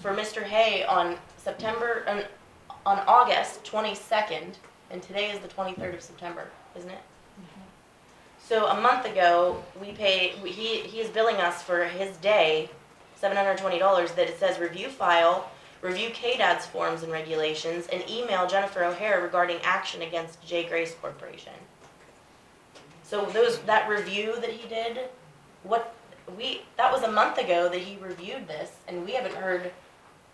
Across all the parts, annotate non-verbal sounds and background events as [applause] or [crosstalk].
for Mr. Hay on September, on, on August twenty-second, and today is the twenty-third of September, isn't it? So a month ago, we pay, we- he, he is billing us for his day, seven hundred and twenty dollars, that it says review file, review KDAD's forms and regulations, and email Jennifer O'Hare regarding action against J. Grace Corporation. So those, that review that he did, what, we, that was a month ago that he reviewed this, and we haven't heard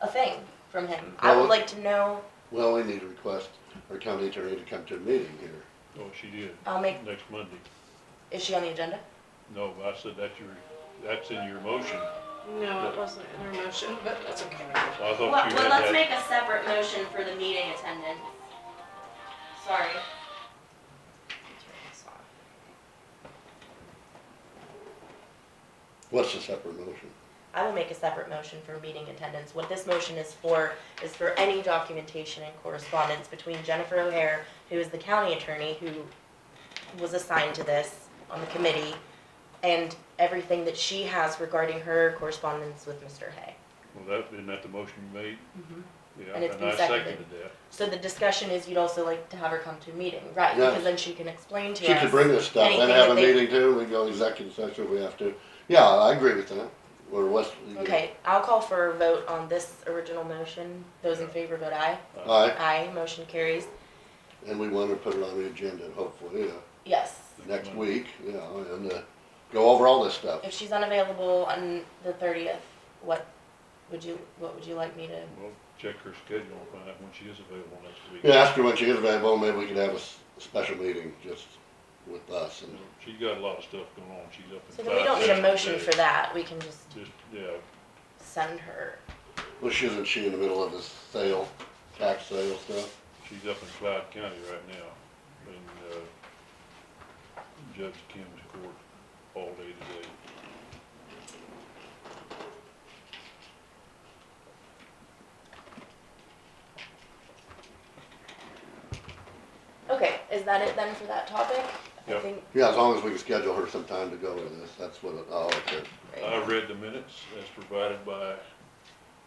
a thing from him. I would Well- like to know, Well, we need to request our county attorney to come to a meeting here. Oh, she did, I'll make, next Monday. is she on the agenda? No, I said that's your, that's in your motion. No, it wasn't in our motion, but that's okay. I Oh, Well, thought you well, let's had that. make a separate motion for the meeting attendance. Sorry. What's the separate motion? I will make a separate motion for meeting attendance. What this motion is for is for any documentation and correspondence between Jennifer O'Hare, who is the county attorney who was assigned to this on the committee, and everything that she has regarding her correspondence with Mr. Hay. Well, that, isn't that the motion you made? Yeah, Mm-hmm. And it's and been I seconded. seconded that. So the discussion is you'd also like to have her come to a meeting, right? Yes. Because then she can explain to She us. could bring this stuff anything and have that a they- meeting too, we go executive session if we have to. Yeah, I agree with that, or what's. Okay, I'll call for a vote on this original motion. Those in favor vote aye. Aye, Aye, motion carries. and we wanna put it on the agenda hopefully, yeah, Yes. next week, yeah, and, uh, go over all this stuff. If she's unavailable on the thirtieth, what would you, what would you like me to? Well, check her schedule, and find out when she is available next week. Yeah, ask her when she is available, maybe we could have a s- special meeting just with us and, She's got a lot of stuff going on, she's up So in five. then we don't need a days motion today. for that. We can just Just, yeah, send her. well, she isn't she in the middle of this sale, tax sale stuff? she's up in Clyde County right now, in, uh, Judge Kim's court all day today. Okay, is that it then for that topic? I Yep. think. Yeah, as long as we can schedule her some time to go to this, that's what, it oh, okay. right. I read the minutes as provided by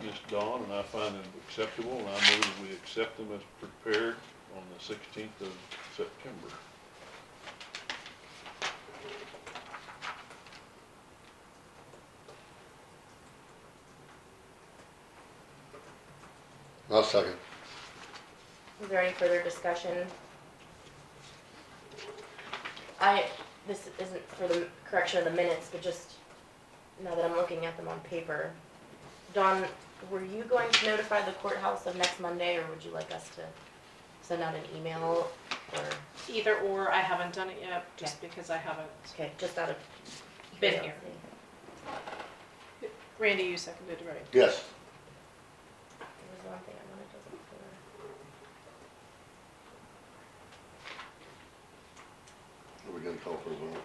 Ms. Dawn, and I find them acceptable, and I move that we accept them as prepared on the sixteenth of September. I'll second. Is there any further discussion? I, this isn't for the correction of the minutes, but just now that I'm looking at them on paper. Don, were you going to notify the courthouse of next Monday, or would you like us to send out an email? Or, Either or, I haven't done it yet, just because I haven't. okay, just out of. Been here. curiosity. Randy, you seconded, right? Yes, There was one thing I wanted to look for. are we gonna call for a vote?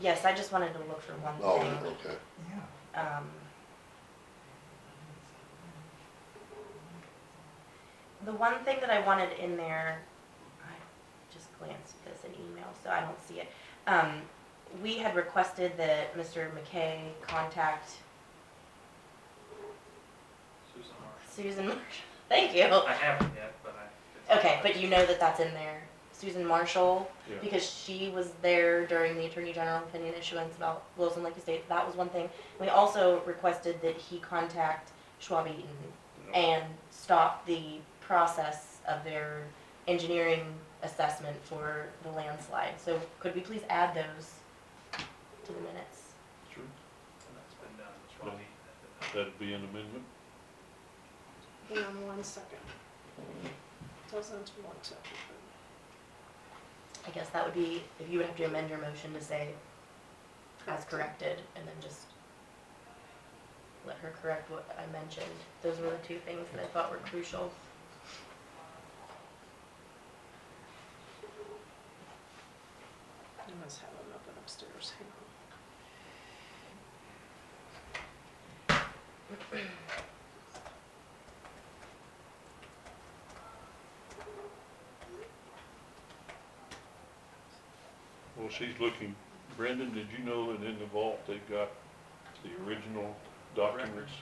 Yes, I just wanted to look for one Oh, thing. okay. um, the one thing that I wanted in there, I just glanced at this in email, so I don't see it. Um, we had requested that Mr. McKay contact Susan Marshall. Susan Marshall. [laughs] Thank you. I haven't yet, but I. Okay, but you know that that's in there. Susan Marshall, Yeah. because she was there during the Attorney General opinion issuance about Wilson Lake Estates. That was one thing. We also requested that he contact Schwab Eaton Yeah. and stop the process of their engineering assessment for the landslide. So could we please add those to the minutes? Sure. And that's been done, it's uh, probably. That'd be an amendment. Hang on one second. Doesn't want to. I guess that would be, if you would have to amend your motion to say as corrected, and then just let her correct what I mentioned. Those were the two things that I thought were crucial. I must have them up and upstairs, hang on. Well, she's looking, Brendan, did you know that in the vault they've got the original documents?